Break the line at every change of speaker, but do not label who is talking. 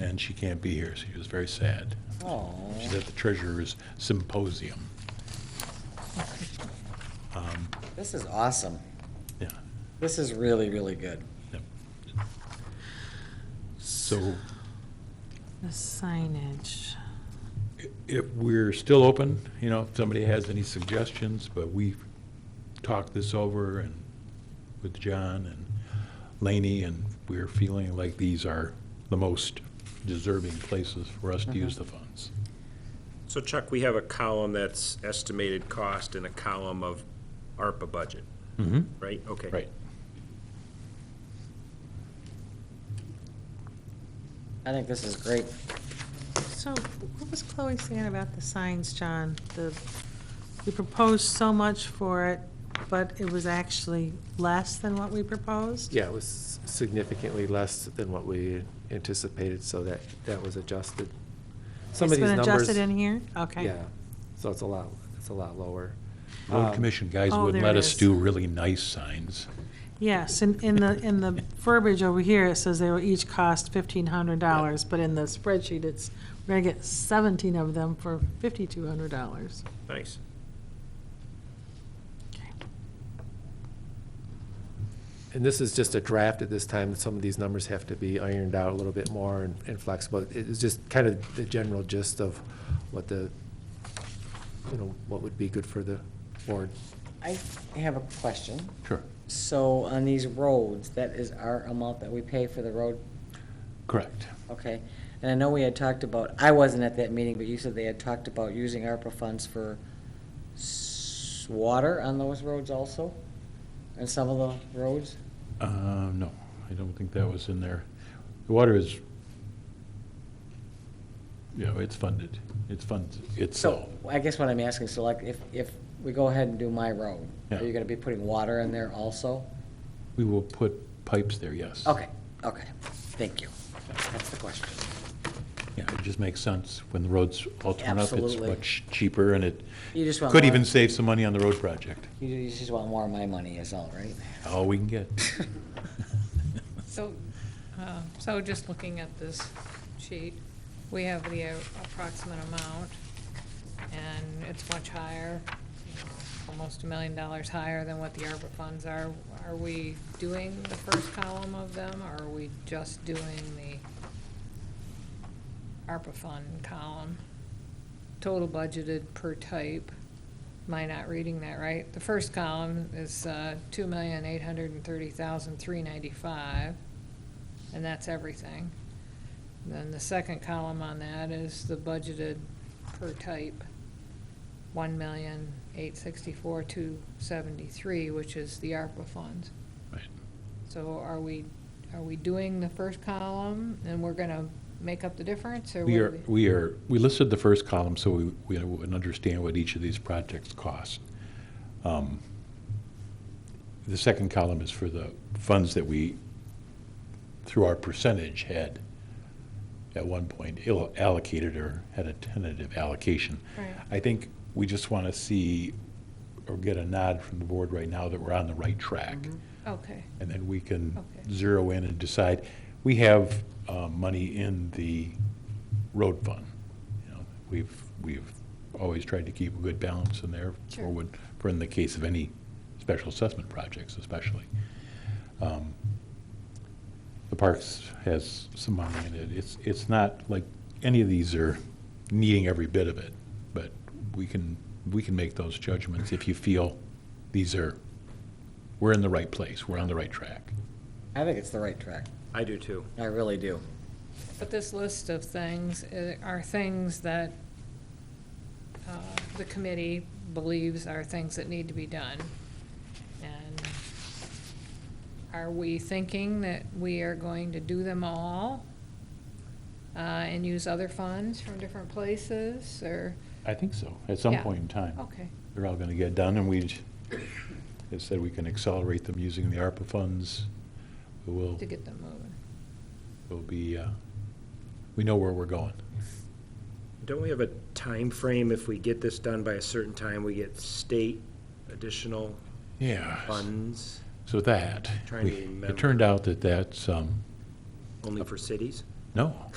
and she can't be here. She was very sad. She's at the treasurer's symposium. Um,
This is awesome.
Yeah.
This is really, really good.
Yep. So
The signage.
if we're still open, you know, if somebody has any suggestions, but we talked this over and with John and Laney, and we're feeling like these are the most deserving places for us to
Mm-hmm.
use the funds.
So Chuck, we have a column that's estimated cost and a column of ARPA budget,
Mm-hmm.
right? Okay.
Right.
I think this is great.
So what was Chloe saying about the signs, John? The, we proposed so much for it, but it was actually less than what we proposed?
Yeah, it was significantly less than what we anticipated, so that, that was adjusted. Some of these numbers.
It's been adjusted in here? Okay.
Yeah, so it's a lot, it's a lot lower.
Road
Um,
Commission guys
Oh,
wouldn't
there
let
it
us
is.
do really nice signs.
Yes, and in the, in the verbiage over here, it says they will each cost fifteen hundred dollars, but in the spreadsheet, it's, we're gonna get seventeen of them for fifty-two hundred dollars.
Nice.
And this is just a draft at this time, some of these numbers have to be ironed out a little bit more and, and flexible. It- It's just kind of the general gist of what the, you know, what would be good for the board.
I have a question.
Sure.
So on these roads, that is our amount that we pay for the road,
Correct.
okay? And I know we had talked about, I wasn't at that meeting, but you said they had talked about using ARPA funds for s- water on those roads also? And some of the roads?
Uh, no, I don't think that was in there. The water is, you know, it's funded. It's uh, funds itself.
So, I guess what I'm asking, so like, if, if we go ahead and do my road,
Yeah.
are you gonna be putting water in there also?
We will put pipes there, yes.
Okay, okay, thank you. That's the question.
Yeah, it just makes sense. When the roads all turn up, it's
Absolutely.
much cheaper, and it
You just want
could
more-
even save some money on the road project.
You you just want more of my money is all, right?
All we can get.
So, uh, so just looking at this sheet, we have the uh, approximate amount, and it's much higher, you know, almost a million dollars higher than what the ARPA funds are. Are we doing the first column of them, or are we just doing the ARPA fund column? Total budgeted per type. Am I not reading that right? The first column is uh, two million, eight hundred and thirty thousand, three ninety-five, and that's everything. Then the second column on that is the budgeted per type, one million, eight sixty-four, two seventy-three, which is the ARPA funds.
Right.
So are we, are we doing the first column, and we're gonna make up the difference, or?
We
what
are, we are, we listed the first column so we, we would understand what each of these projects cost. Um, The second column is for the funds that we, through our percentage, had at one point ill- allocated or had a tentative allocation.
Right.
I think we just want to see or get a nod from the board right now that we're on the right track.
Okay,
And then we can
Mm-hmm. Okay.
zero in and decide. We have uh, money in the road fund. You know, We've, we've always tried to keep a good balance in there for
Sure.
when, for in the case of any special assessment projects especially. Um, The parks has some money in it. It's, it's not like any of these are needing every bit of it, but we can, we can make those judgments if you feel these are we're in the right place, we're on the right track.
I think it's the right track.
I do too.
I really do.
But this list of things uh, are things that uh, the committee believes are things that need to be done. And are we thinking that we are going to do them all uh, and use other funds from different places, or,
I think so, at some
Yeah. Oh.
point in time.
okay,
They're all going to get done, and we, j- as said, we can accelerate them using the ARPA funds. We will,
to get them moving?
will be, uh, we know where we're going.
Don't we have a time frame? If we get this done by a certain time, we get state additional
Yeah.
funds
So that,
Trying to
we-
remember.
it turned out that that's, um,
only for cities?
no.